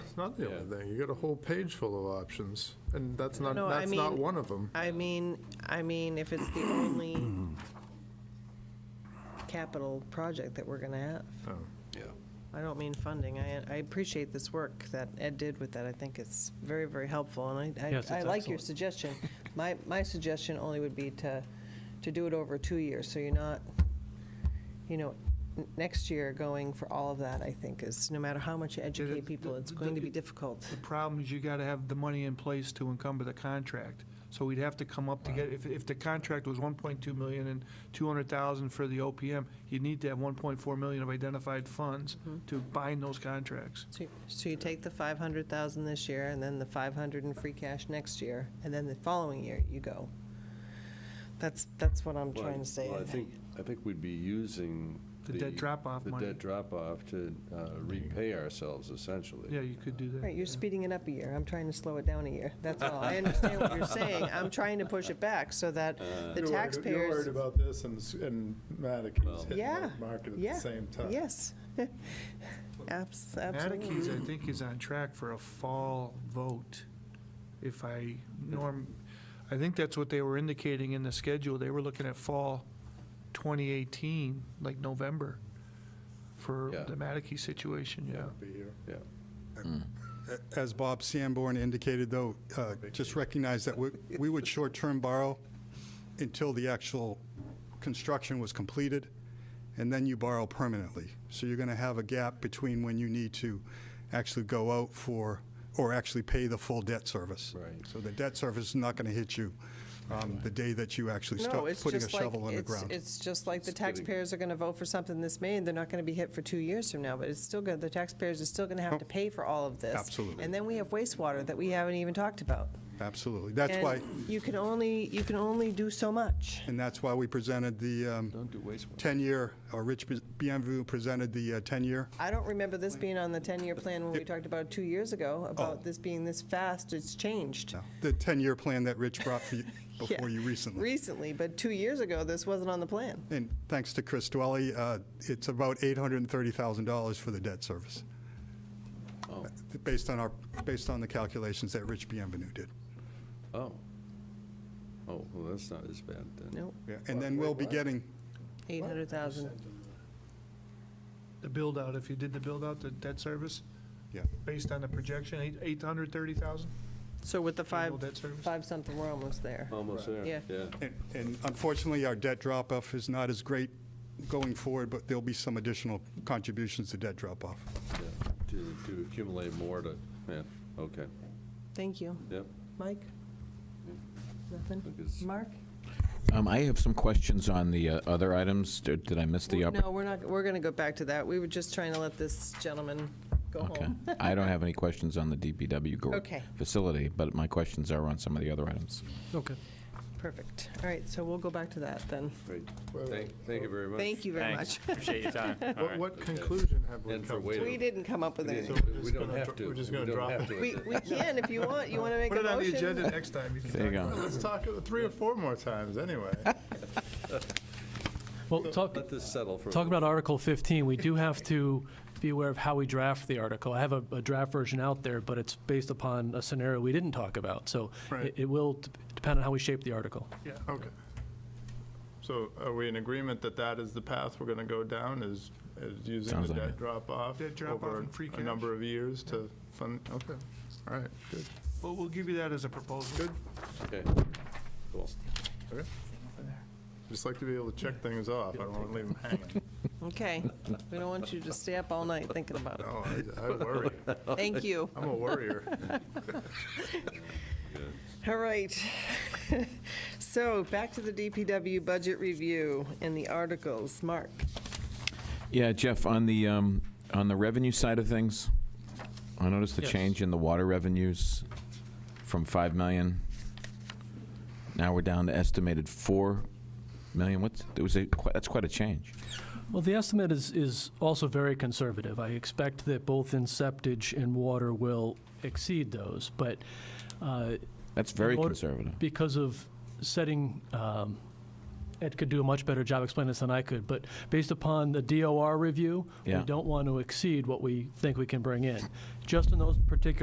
It's not the only Yeah. thing. You got a whole page full of options, and that's not, No, I that's not mean- one of them. I mean, I mean, if it's the only capital project that we're gonna have. Yeah. I don't mean funding. I, I appreciate this work that Ed did with that. I think it's very, very helpful, and I, Yes, I, I it's like your excellent. suggestion. My, my suggestion only would be to, to do it over two years, so you're not, you know, n- next year going for all of that, I think, is, no matter how much you educate people, it's going to be difficult. The problem is you gotta have the money in place to encumber the contract. So we'd have to come up to get, if, if the contract was one point two million and two hundred thousand for the OPM, you'd need to have one point four million of identified funds to bind those contracts. So you- So you take the 500,000 this year, and then the 500 in free cash next year, and then the following year you go. That's, that's what I'm Well, trying to say. Well, I think, I think we'd be using. The debt drop-off money. The debt drop-off to uh, repay ourselves essentially. Yeah, you could do that. Right, you're speeding it up a year. I'm trying to slow it down a year. That's all. I understand what you're saying. I'm trying to push it back so that Uh, the You're worried taxpayers. about this, and, s- and Mattakey's hitting Yeah, the market at yeah, the same time. Yes. Abs- Absolutely. Atticus, I think, is on track for a fall vote, if I, Norm, I think that's what they were indicating in the schedule, they were looking at fall 2018, like November, for Yeah. the Mattakey situation, yeah. Be here. Yeah. As Bob Sanborn indicated, though, uh, just recognize that we we would short-term borrow until the actual construction was completed, and then you borrow permanently. So you're going to have a gap between when you need to actually go out for, or actually pay the full debt service. Right. So the debt service is not going to hit you um, the day that you actually No, start it's putting a just like, shovel in the it's, ground. it's just like the It's getting- taxpayers are going to vote for something this May, and they're not going to be hit for two years from now, but it's still good, the taxpayers are still going to have to pay for all of this. Oh, Absolutely. And then we have wastewater that we haven't even talked about. Absolutely. That's And why, You can only, you can only do so much. and that's why we presented the um, Don't do wastewater. 10-year, or Rich Bienvu presented the uh, 10-year I don't remember this being on the 10-year plan when we talked about it two years ago, Oh. about this being this fast, it's changed. No, The 10-year plan that Rich brought for you, before Yeah. you recently. Recently, but two years ago, this wasn't on the plan. And thanks to Chris Dwelly, uh, it's about $830,000 for the debt service. uh, Oh. Based on our, based on the calculations that Rich Bienvenu did. Oh. Oh, well, that's not as bad then. Nope, And then we'll be getting, 800,000. The build-out, if you did the build-out, the debt service, yeah, based on the projection, eight- 830,000? So with the five, Annual debt service? five something, we're almost there. Almost there. Yeah. And- and unfortunately, our debt drop-off is not as great going forward, but there'll be some additional contributions to debt drop-off. yeah. To, to accumulate more to, yeah, okay, Thank you. yep. Mike? Nothing? Look, it's- Mark? Um, I have some questions on the uh, other items. Did did I miss the? oppor- No, we're not, we're going to go back to that. We were just trying to let this gentleman go Okay. home. I don't have any questions on the DPW gr- Okay. facility, but my questions are on some of the other items. Okay. Perfect. All right, so we'll go back to that then. Great. Well, Thank, thank you very much. Thank you very Thanks. much. Appreciate your time. All What, right. what conclusion have we And for come to? waiting. We didn't come up with We anything. we're don't- We just don't gonna have dro- to. we're just We gonna don't drop have it. to at We, this- we can if you want. You want to make Put a it on the motion? agenda next time. can There you talk go. about it. Let's talk it three or four more times, anyway. Well, talk, Let this settle for. a talk little about Article 15, we do have to be aware of how we draft the article. I have a, a draft version out there, but it's based upon a scenario we didn't talk about. So Right. it, it will d- depend on how we shape the article. Okay. So are we in agreement that that is the path we're gonna go down, is, is using Sounds the like debt it. drop-off? Debt drop-off over and free A cash. number of years to fund, okay, all right, good. Well, we'll give you that as a proposal. Okay, cool. Okay. Just like to be able to check things off, I don't wanna leave them hanging. Okay. We don't want you to stay up all night thinking about it. No, I- I worry, Thank you. I'm a worrier. All right. So back to the DPW budget review and the articles. Mark? Yeah, Jeff, on the, um, on the revenue side of things, I noticed the Yes. change in the water revenues from 5 million. Now we're down to estimated 4 million. What's, there was a, qui- that's quite a change. Well, the estimate is, is also very conservative. I expect that both in septage and water will exceed those, but uh, That's very Water- conservative. because of setting um, Ed could do a much better job explaining this than I could, but based upon the DOR review, we Yeah. don't want to exceed what we think we can bring in. Just in those particular